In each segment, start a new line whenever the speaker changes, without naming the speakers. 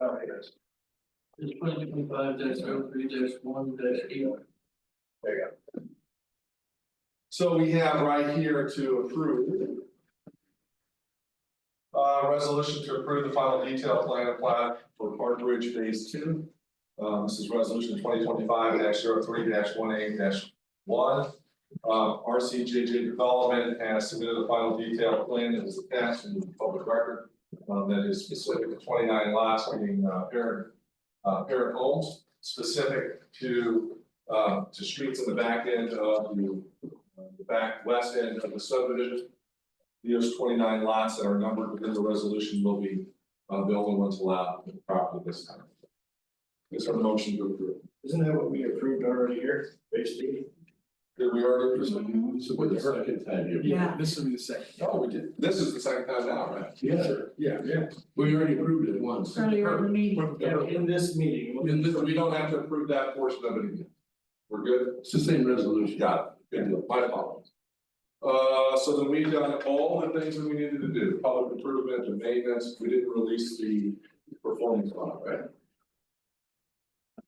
All right, guys.
It's twenty twenty-five dash oh three dash one dash eight.
There you go.
So we have right here to approve. Uh, resolution to approve the final detailed plan and plat for Park Ridge Phase Two. Um, this is resolution twenty twenty five 3 one eight one. Um, R C J J Development has submitted a final detailed plan that is attached in the public record. um, that is specific to twenty nine lots, meaning uh parent, uh parent homes, specific to. Uh, to streets in the back end of the uh, the back west end of the subdivision. Those twenty-nine lots that are numbered within the resolution will be, uh, the only ones allowed in the property this time. Is there a motion to approve?
Isn't that what we approved already here, basically?
Did we already approve?
This will be the second time you.
Mm-hmm. Yeah.
This will be the second.
No, we did. This is the second time out, right?
Yeah,
Yeah, yeah.
we already approved it once.
Earlier in the meeting,
Yeah,
We
in this meeting. what-
don't have to approve that portion of it again. We're good?
It's the same resolution.
Got it, good deal, my apologies. Uh, so then we've done all the things that we needed to do, public improvement and maintenance, we didn't release the performance bond, right?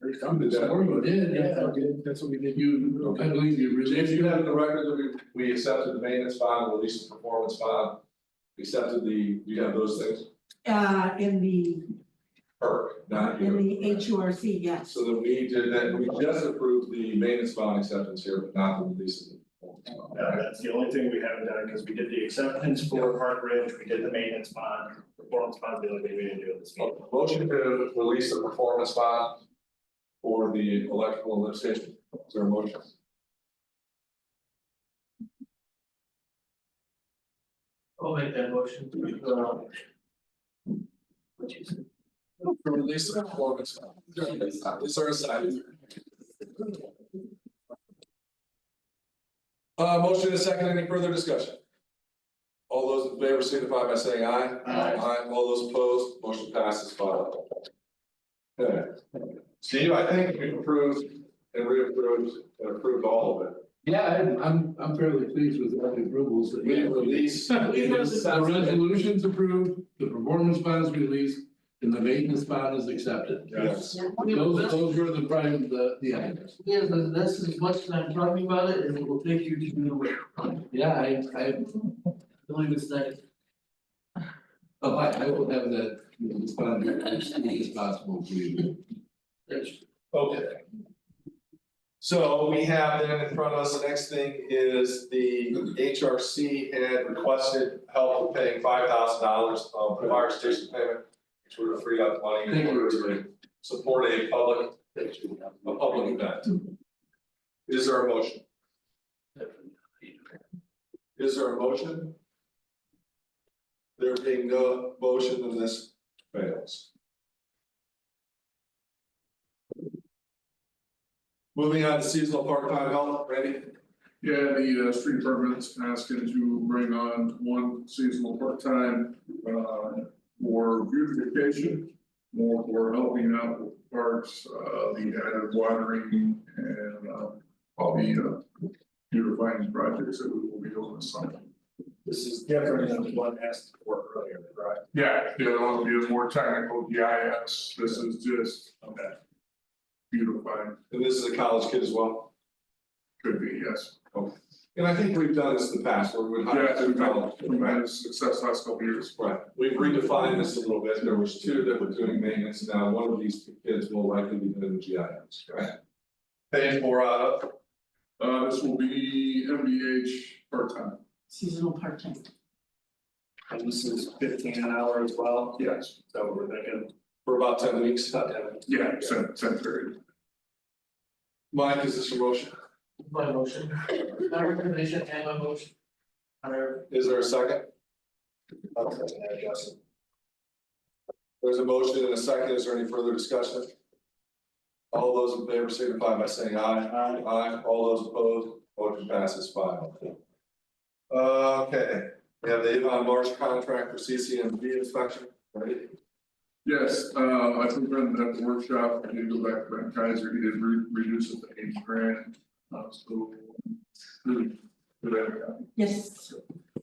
This morning we did, yeah.
did, that's what we did.
You, I believe you
If
released
you
it.
have the record that we, we accepted the maintenance bond, released the performance bond, accepted the, you have those things,
uh, in the,
perk, not
in
you.
the H U R C, yes.
So then we did that, we just approved the maintenance bond acceptance here, but not the release of the performance bond,
Uh,
right?
that's the only thing we haven't done, because we did the acceptance for Park Ridge, we did the maintenance bond, performance bond, the only thing we didn't do in this meeting.
Uh, Motion to release the performance bond for the electrical lift station, is there a motion?
I'll make that motion. Uh, What you said.
To release the performance bond, is there a second? Uh, motion and a second, any further discussion? All those in favor signify by saying aye.
Aye.
all those opposed, motion passes five. oh. Okay, Steve, I think we approved and reapproved and approved all of it.
Yeah, I'm- I'm, I'm fairly pleased with all the approvals that.
We released.
The resolution's approved, the performance bond is released, and the maintenance bond is accepted.
Yes.
Those, those were the prime, the, the items.
Yeah, but that's as much as I'm talking about it, and it will take you to the way. I
Yeah, I, I
believe it's next.
Oh, I, I will have that, you know, respond as quickly as possible for you.
That's-
Okay. So we have then in front of us, the next thing is the HRC had requested help with paying five thousand dollars of the fire station payment. Which would have freed up money in order to support a public, a public event. Is there a motion? Is there a motion? There being no motion, then this fails. Moving on to seasonal part-time help, Randy?
Yeah, the uh street department's asking to bring on one seasonal part-time uh for beautification. More for helping out with parks, uh the added watering and uh all the uh beautifying projects that we will be doing this summer.
This is different than what asked for earlier, right?
Yeah, the other one will be more technical GIS, this is just
Okay.
beautifying,
And this is a college kid as well.
could be, yes.
And I think we've done this in the past, where we've hired
Yeah,
two
we've had,
college kids,
we've
right?
had success last couple years,
Right, we've redefined this a little bit, there was two that were doing maintenance, now one of these kids will likely be doing the GIS, right? Paying for, uh,
uh this will be MBH part-time.
Seasonal part-time.
And this is fifteen an hour as well,
Yes,
so we're thinking
for about ten weeks.
about that.
yeah, same, same period.
Mike, is this your motion?
My motion, my recommendation and my motion. Higher.
Is there a second?
Okay, Justin.
There's a motion and a second, is there any further discussion? All those in favor signify by saying aye.
Aye.
Aye, all those opposed, motion passes five oh. Okay, we have the Avon Marsh contract for CCMV inspection, right?
Yes, uh, I think when at the workshop, I did go back to Ben Kaiser, he did re- reduce it to eight grand, uh, so. really, Good idea.
Yes,